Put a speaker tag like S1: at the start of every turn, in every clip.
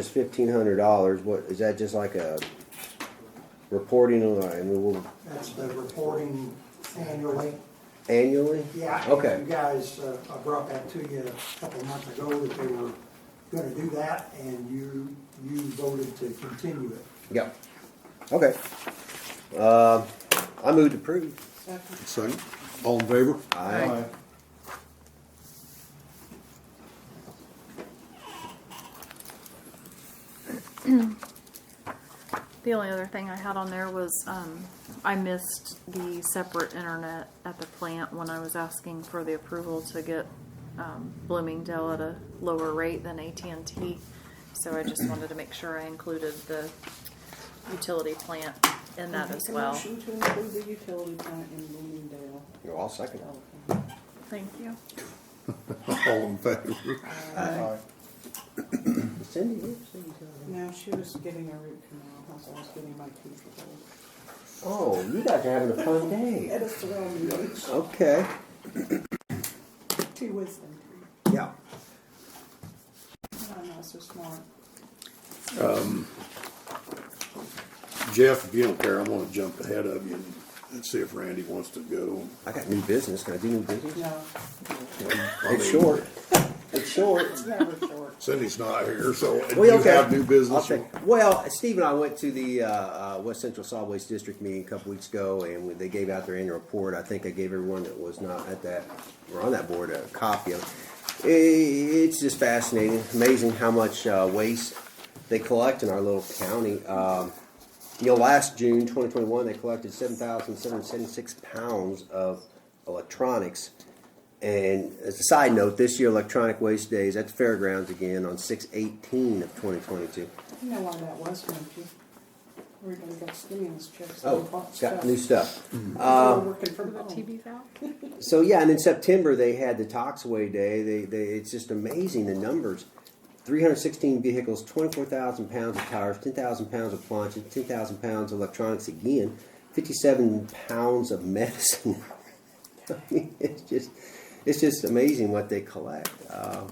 S1: It's fifteen hundred dollars, what, is that just like a reporting line, we will
S2: That's the reporting annually.
S1: annually?
S2: Yeah.
S1: Okay.
S2: You guys, uh, I brought that to you a couple months ago that they were gonna do that and you, you voted to continue it.
S1: Yeah, okay. Uh, I move to approve.
S3: Second. All in favor?
S1: Aye.
S4: The only other thing I had on there was, um, I missed the separate internet at the plant when I was asking for the approval to get, um, Bloomingdale at a lower rate than AT&T. So I just wanted to make sure I included the utility plant in that as well.
S5: Make a motion to include the utility plant in Bloomingdale.
S1: No, I'll second it.
S5: Okay.
S4: Thank you.
S3: All in favor?
S1: Cindy, where's Cindy going?
S5: Now, she was getting a root canal, that's why I was getting my tooth pulled.
S1: Oh, you guys are having a fun day.
S5: At a soil meeting,
S1: Okay.
S5: she was in.
S1: Yeah.
S5: I'm not so smart.
S3: Jeff, if you don't care, I'm gonna jump ahead of you and- and see if Randy wants to go.
S1: I got new business, can I do new business?
S5: No,
S3: I
S1: It's
S3: mean,
S1: short, it's short.
S5: it's never short.
S3: Cindy's not here, so do
S1: Well,
S3: you
S1: okay.
S3: have new
S1: I'll
S3: business?
S1: take- Well, Steve and I went to the uh, uh, West Central Solid Waste District meeting a couple weeks ago, and when they gave out their annual report, I think I gave everyone that was not at that or on that board a copy of it. I- It's just fascinating, amazing how much uh, waste they collect in our little county. Um, you know, last June 2021, they collected 7,776 pounds of electronics. And as a side note, this year Electronic Waste Day is at the fairgrounds again on 6/18 of 2022.
S5: You know why that was, don't you? We're gonna get stimulus checks. and
S1: Oh,
S5: bought
S1: it's
S5: stuff.
S1: got new uh, stuff.
S5: So We're working from
S4: The
S5: home.
S4: TV valve?
S1: So yeah, and in September they had the Toxaway Day. They, they it's just amazing the numbers. 316 vehicles, 24,000 pounds of tires, 10,000 pounds of planches, 10,000 pounds of electronics again, 57 pounds of medicine. I mean, it's just it's just amazing what they collect. Uh,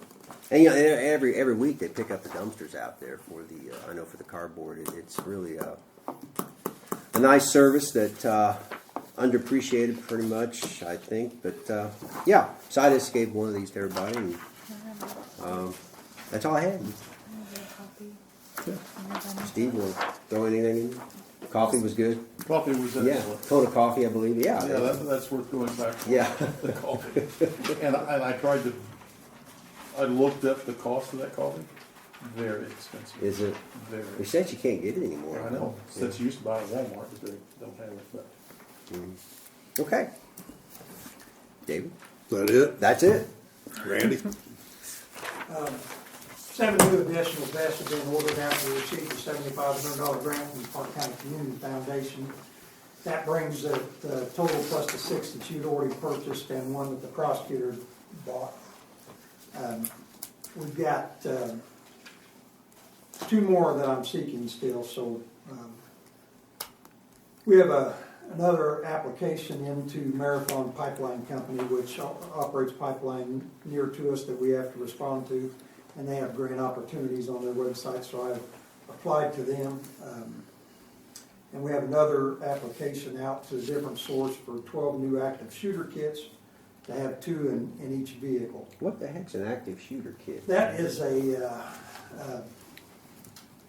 S1: and you know, and every every week they pick up the dumpsters out there for the uh, I know for the cardboard. It, it's really uh, a nice service that uh, underappreciated pretty much, I think. But uh, yeah, so I just gave one of these to everybody, and um, that's all I had. Steve, will throw anything in. Coffee was good.
S6: Coffee was
S1: Yeah,
S6: excellent.
S1: Coda coffee, I believe. Yeah,
S6: Yeah, that, that's worth going back for.
S1: Yeah.
S6: The coffee. And I, and I tried to, I looked up the cost of that coffee, very expensive.
S1: is it?
S6: Very.
S1: They said you can't get it anymore.
S6: I know,
S1: Yeah.
S6: since you used to buy it at Walmart, but they don't have it, but.
S1: Okay, David,
S3: Is that it?
S1: that's it.
S3: Randy?
S2: Seven new additional vests have been ordered after we received the seventy-five hundred dollar grant from the Park County Community Foundation. That brings the, the total plus the six that you'd already purchased and one that the prosecutor bought. Um, We've got, um, two more that I'm seeking still, so, um, we have a, another application into Marathon Pipeline Company, which o- operates pipeline near to us that we have to respond to. And they have grant opportunities on their website, so I've applied to them. Um, And we have another application out to a different source for twelve new active shooter kits to have two in, in each vehicle.
S1: What the heck's an active shooter kid?
S2: That is a, uh, uh,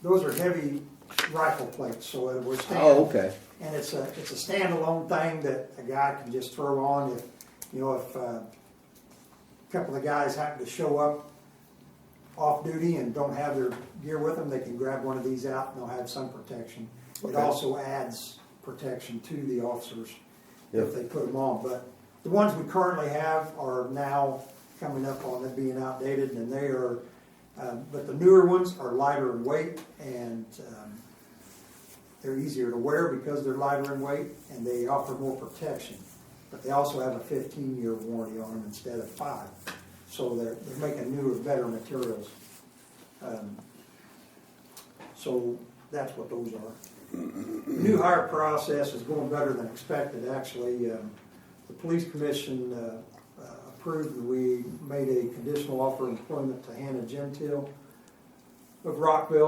S2: those are heavy rifle plates, so it was.
S1: Oh, okay.
S2: And it's a, it's a standalone thing that a guy can just throw on if, you know, if uh, a couple of guys happen to show up off duty and don't have their gear with them, they can grab one of these out and they'll have some protection. It
S1: Okay.
S2: also adds protection to the officers if
S1: Yeah.
S2: they put them on, but the ones we currently have are now coming up on it being outdated and they are, um, but the newer ones are lighter in weight and, um, they're easier to wear because they're lighter in weight and they offer more protection. But they also have a fifteen-year warranty on them instead of five. So they're, they're making newer, better materials. Um, So that's what those are. The New hire process is going better than expected, actually. Um, The police commission uh, uh, approved, that we made a conditional offer of employment to Hannah Gentile of Rockville